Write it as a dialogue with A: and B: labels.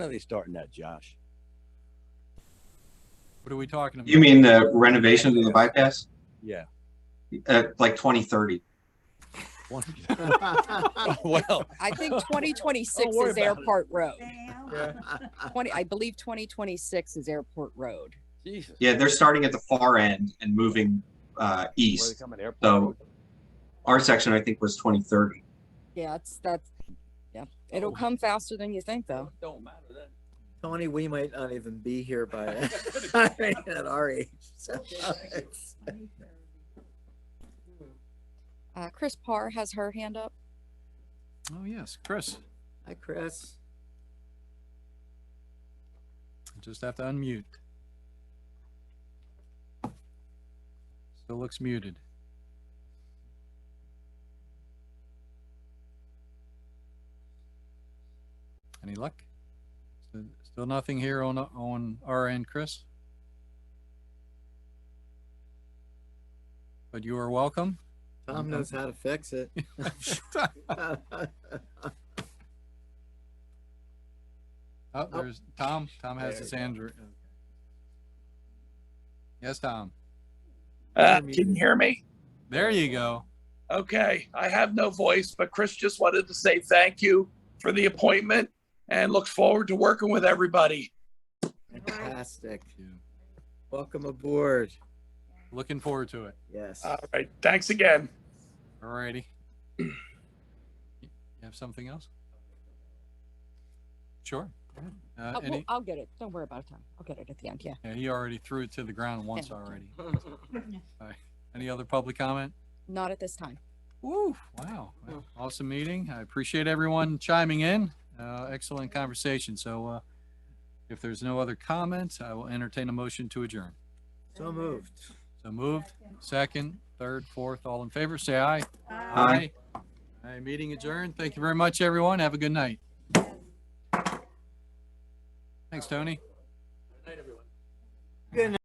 A: When are they starting that, Josh?
B: What are we talking about?
C: You mean the renovation of the bypass?
A: Yeah.
C: Uh, like twenty thirty.
A: One- Well,
D: I think twenty twenty-six
A: worry
D: is
A: about it.
D: Airport Road.
B: Yeah.
D: Twenty, I believe twenty twenty-six is Airport Road.
A: Jesus.
C: Yeah, they're starting at the far end and moving uh,
A: Where they
C: east.
A: come at airport.
C: So-
A: Road?
C: Our section, I think, was twenty thirty.
D: Yeah, it's, that's, yeah, it'll come faster than you think though.
A: Don't matter then.
E: Tony, we might not even be here by at our age. so it's-
D: Uh, Chris Parr has her hand up.
B: Oh, yes, Chris,
E: Hi, Chris.
B: you just have to unmute. Still looks muted. Any luck? Still- Still nothing here on, on our end, Chris? But you are welcome.
E: Tom
B: Mm-hmm.
E: knows how to fix it. Oh,
B: Oh, there's Tom. Tom has his hand. ra- Yes, Tom.
F: Uh, can you hear me?
B: There you go.
F: Okay, I have no voice, but Chris just wanted to say thank you for the appointment and looks forward to working with everybody.
E: Fantastic.
B: You-
E: Welcome aboard.
B: Looking forward to it.
E: Yes.
F: All right, thanks again.
B: Alrighty. You have something else? Sure. Uh,
D: Uh, well,
B: any,
D: I'll get it. Don't worry about it, Tom. I'll get it at the end, yeah.
B: yeah, he already threw it to the ground once
D: Yeah.
B: already. Alright. Any other public comment?
D: Not at this time.
B: Woo, wow. Awesome meeting. I appreciate everyone chiming in. Uh, excellent conversation. So, uh, if there's no other comments, I will entertain a motion to adjourn.
E: So moved.
B: So moved, second, third, fourth, all in favor, say aye.
C: Aye.
B: Aye, meeting adjourned. Thank you very much, everyone. Have a good night. Thanks, Tony.